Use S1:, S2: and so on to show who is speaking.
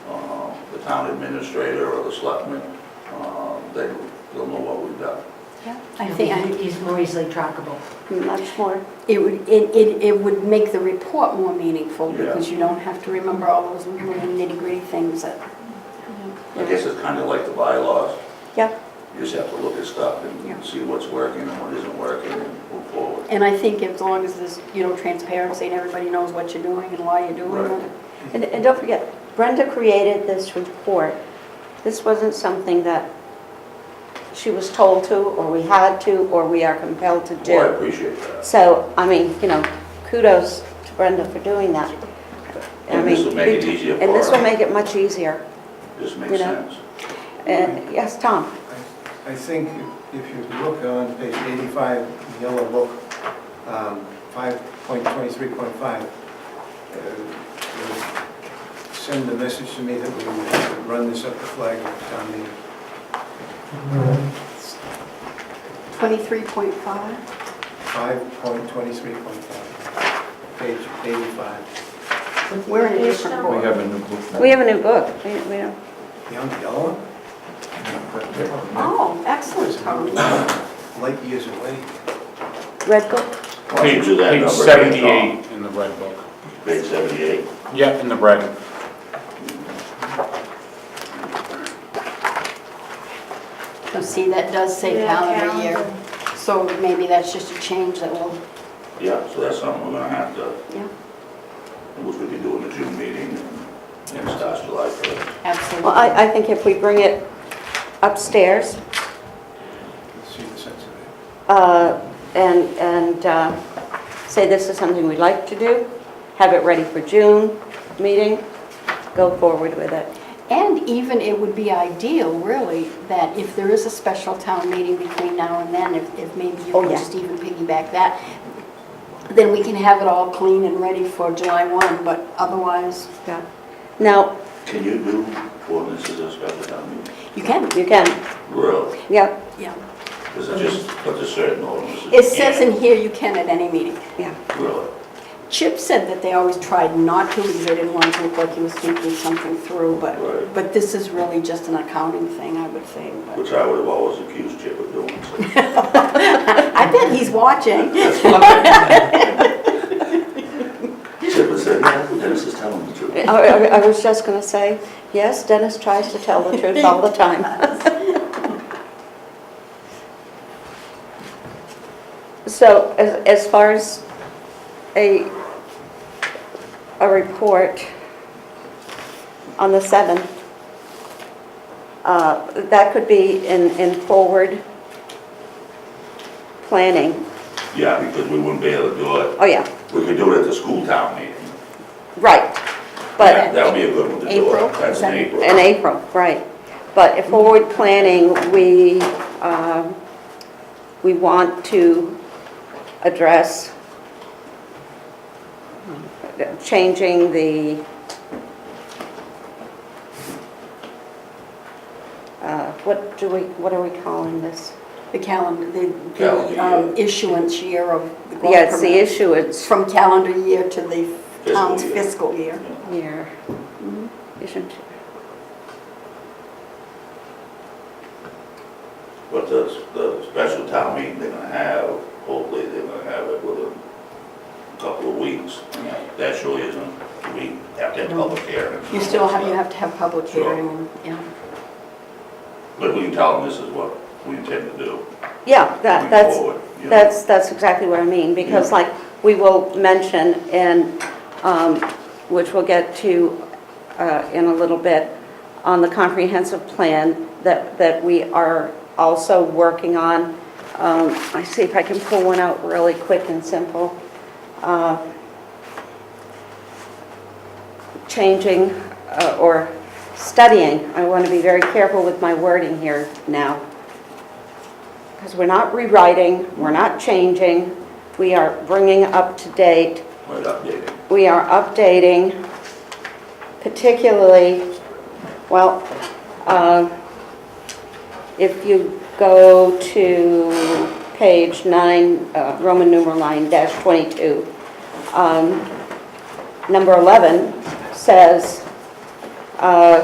S1: Uh, town administrator or the selectmen, uh, they, they'll know what we've done.
S2: I think I- he's more easily trackable.
S3: Much more, it would, it, it, it would make the report more meaningful
S1: Yeah.
S3: because you don't have to remember all those little nitty gritty things that.
S1: I guess it's kind of like the bylaws,
S3: Yeah,
S1: you just have to look at stuff
S3: Yeah.
S1: and see what's working and what isn't working and move forward.
S3: and I think as long as there's, you know, transparency and everybody knows what you're doing and why you're doing
S1: Right.
S3: it.
S4: And, and don't forget, Brenda created this report. This wasn't something that she was told to, or we had to, or we are compelled to
S1: Well, I
S4: do.
S1: appreciate that.
S4: So, I mean, you know, kudos to Brenda for doing that. I
S1: And this
S4: mean,
S1: will make it
S4: you-
S1: easier for
S4: And this will
S1: her.
S4: make it much easier.
S1: This
S4: you
S1: makes
S4: know.
S1: sense.
S4: And, yes, Tom?
S5: I- I think if you look on page 85, in yellow book, um, 5.23.5, uh, you send the message to me that we would run this up the flag of town meeting.
S3: Twenty-three point five?
S5: 5.23.5, page 85.
S3: We're in a different
S6: We
S3: board.
S6: have a new book now.
S4: We have a new book. We, we don't.
S5: Young yellow,
S3: Oh, excellent, Tom.
S5: light years away.
S4: Red book?
S1: Why don't you do that
S6: Page
S1: number again, Tom?
S6: 78 in the red book.
S1: Page seventy-eight.
S6: Yeah, in the red.
S3: So see, that does say
S2: Yeah,
S3: calendar
S2: calendar.
S3: year. So maybe that's just a change that will,
S1: Yeah, so that's something we're gonna have to,
S3: yeah,
S1: which we can do in the June meeting, and it starts July first.
S3: absolutely.
S4: Well, I, I think if we bring it upstairs,
S5: Let's see the sense of it.
S4: uh, and, and uh, say this is something we'd like to do, have it ready for June meeting, go forward with it.
S3: And even it would be ideal, really, that if there is a special town meeting between now and then, if, if maybe you
S4: Oh,
S3: can
S4: yeah.
S3: just even piggyback that, then we can have it all clean and ready for July 1, but otherwise,
S4: Yeah. Now,
S1: Can you do ordinances as special town meeting?
S3: you can.
S4: you can,
S1: Really?
S4: yeah,
S3: Yeah.
S1: Because it just, but there's certain ordinances. you
S3: It says
S1: can't.
S3: in here you can at any meeting.
S4: yeah.
S1: Really?
S3: Chip said that they always tried not to, because they didn't want it to look like he was thinking something through, but,
S1: Right.
S3: but this is really just an accounting thing, I would think. but-
S1: Which I would have always accused Chip of doing. so.
S3: I bet he's watching.
S1: Chip would say, no, Dennis is telling the
S4: I,
S1: truth.
S4: I I was just gonna say, yes, Dennis tries to tell the truth all the time. So as, as far as a, a report on the 7th, uh, that could be in, in forward planning.
S1: Yeah, because we wouldn't be able to do it.
S4: Oh, yeah,
S1: We could do it at the school town meeting.
S4: right.
S1: That
S4: But
S1: that would be a good one to do
S3: April,
S1: it. That's in April.
S4: In April, right. But if forward planning, we, um, we want to address changing the, uh, what do we, what are we calling this?
S3: The calendar, the,
S1: Calendar
S3: the um,
S1: year.
S3: issuance year of the growth
S4: Yeah, it's the
S3: permit.
S4: issue, it's
S3: From calendar year to the
S1: Fiscal
S3: town's
S1: year.
S3: fiscal year.
S4: here, isn't,
S1: But the, the special town meeting they're gonna have, hopefully they're gonna have it within a couple of weeks. And that- That surely isn't, we have to have public hearing.
S3: You still have, you have to have public
S1: Sure.
S3: hearing, and, yeah.
S1: But we can tell them this is what we intend to do.
S4: yeah,
S1: going
S4: that, that's,
S1: forward, you know.
S4: That's, that's exactly what I mean, because
S1: Yeah.
S4: like, we will mention and, um, which we'll get to uh, in a little bit, on the comprehensive plan that, that we are also working on. Um, I see if I can pull one out really quick and simple. Uh, Changing uh, or studying, I want to be very careful with my wording here now. Because we're not rewriting, we're not changing, we are bringing up to date,
S1: Might update it.
S4: we are updating, particularly, well, uh, if you go to page nine, uh, Roman numeral nine dash 22, um, number 11 says, uh,